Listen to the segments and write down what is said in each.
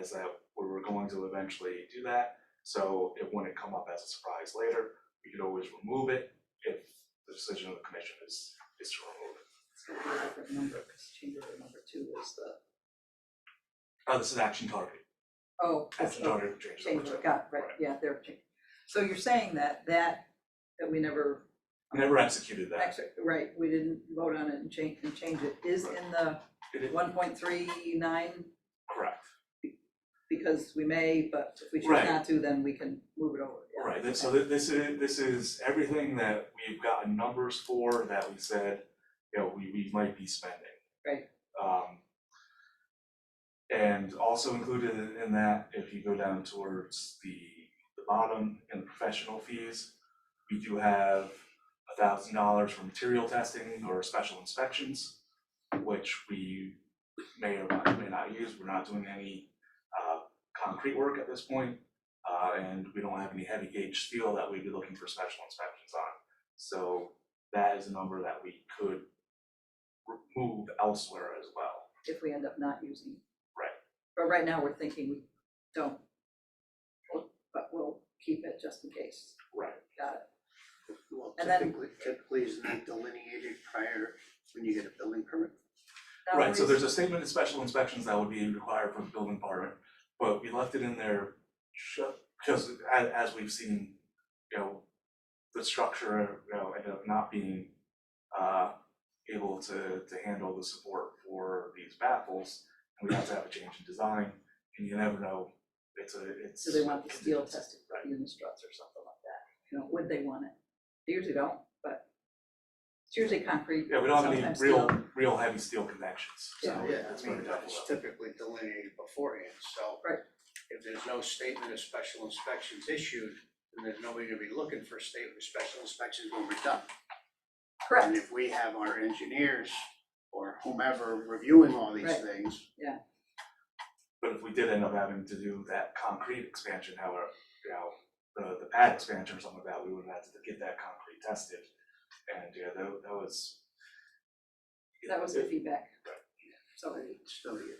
is that we were going to eventually do that. So it wouldn't come up as a surprise later, we could always remove it if the decision of the commission is, is to remove it. It's gonna be a different number, because change order number two is the, Oh, this is action target, oh, that's, action oh, target changes over change to. order, got, it, right, yeah, they're changing. So you're saying that, that, that we never. Never executed that, Actually, right, we didn't vote on it and change, and change it, is in the It is- one point three nine, correct, because we may, but if we choose Right. not to, then we can move it over. yeah. right, This- so thi- this is, this is everything that we've gotten numbers for that we said, you know, we, we might be spending. Right. Um. And also included in that, if you go down towards the, the bottom and the professional fees, we do have a thousand dollars for material testing or special inspections, which we may or not- may not use, we're not doing any, uh, concrete work at this point. Uh, and we don't have any heavy gauge steel that we'd be looking for special inspections on. So that is a number that we could remove elsewhere as well. If we end up not using. it. Right. But right now, we're thinking we don't. We'll- But we'll keep it just in case, Right. got it. Well, And then- typically, typically isn't that delineated prior when you get a building permit? Right, so Boundaries. there's a statement of special inspections that would be required for the building department, but we left it in there ju- just as, as we've seen, you know, the structure, you know, ended up not being, uh, able to, to handle the support for these baffles. And we have to have a change in design, and you never know, it's a, it's. So they want the steel tested, Right. in the struts or something like that, you know, would they want it? They usually don't, but it's usually concrete, Yeah, we don't have any sometimes real, steel. real heavy steel connections, so Yeah, it's I very mean, difficult. it's typically delineated beforehand, so. Right. If there's no statement of special inspections issued, then there's nobody gonna be looking for statement of special inspections when we're done. And Correct, if we have our engineers or whomever reviewing all these Right. things, But if we did end up having to do that concrete expansion, however, you know, the, the pad expansion or something like that, we would have to get that concrete tested. And, yeah, that, that was. that was the feedback. Right. So, it's still you.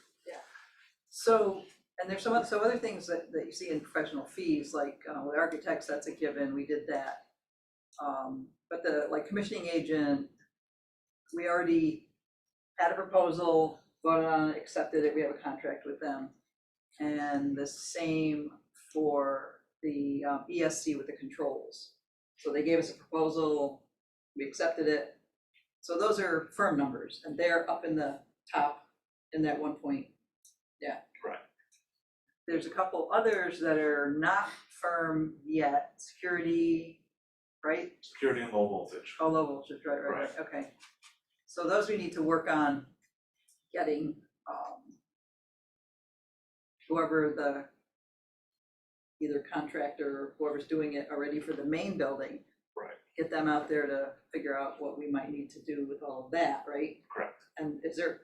so, and there's some, oth- so other things that, that you see in professional fees, like, uh, with architects, that's a given, we did that. Um, but the, like commissioning agent, we already had a proposal, voted on it, accepted it, we have a contract with them. And the same for the um, ESC with the controls. So they gave us a proposal, we accepted it. So those are firm numbers, and they're up in the top in that one point, yeah. Right. There's a couple others that are not firm yet, security, right? Security and low voltage. Oh, low voltage, right, right, right, okay. So those we need to work on getting, um, whoever the, either contractor, or whoever's doing it already for the main building. Right. Get them out there to figure out what we might need to do with all of that, right? Correct. And is there,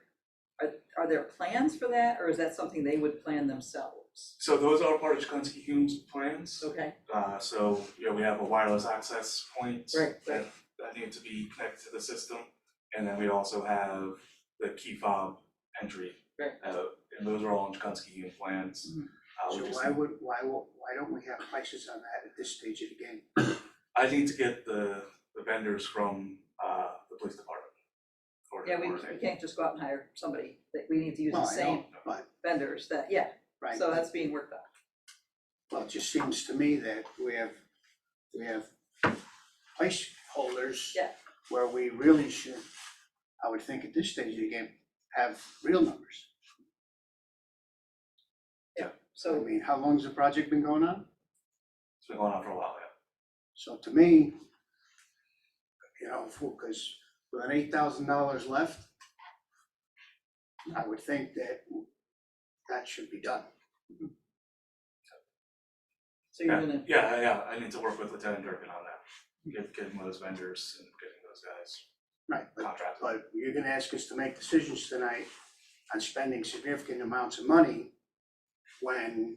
are, are there plans for that, or is that something they would plan themselves? So those are part of Chikunsky Hume's plans. Okay, Uh, so, you know, we have a wireless access point. Right, right. That, that need to be connected to the system. And then we also have the key fob entry. Right. Uh, and those are all in Chikunsky Hume plans. Mhm. Uh, we So just why need- would, why will, why don't we have prices on that at this stage of the game? I need to get the, the vendors from, uh, the police department. for the yeah, we, we coordinate. can't just go out and hire somebody, that we need to use Well, the I know, same But, vendors that, yeah, right. so that's being worked on. Well, it just seems to me that we have, we have placeholders. Yeah. Where we really should, I would think at this stage of the game, have real numbers. I So, mean, how long's the project been going on? It's been going on for a while, yeah. So to me, you know, because with an eight thousand dollars left, I would think that that should be done. so you're gonna, Yeah, yeah, yeah, I need to work with Lieutenant Durkin on that, get, getting those vendors and getting those guys Right. But contracted. But you're gonna ask us to make decisions tonight on spending significant amounts of money when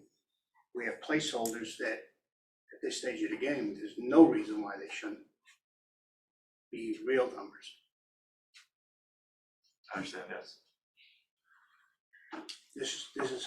we have placeholders that, at this stage of the game, there's no reason why they shouldn't be real numbers. I understand, yes. This, is this is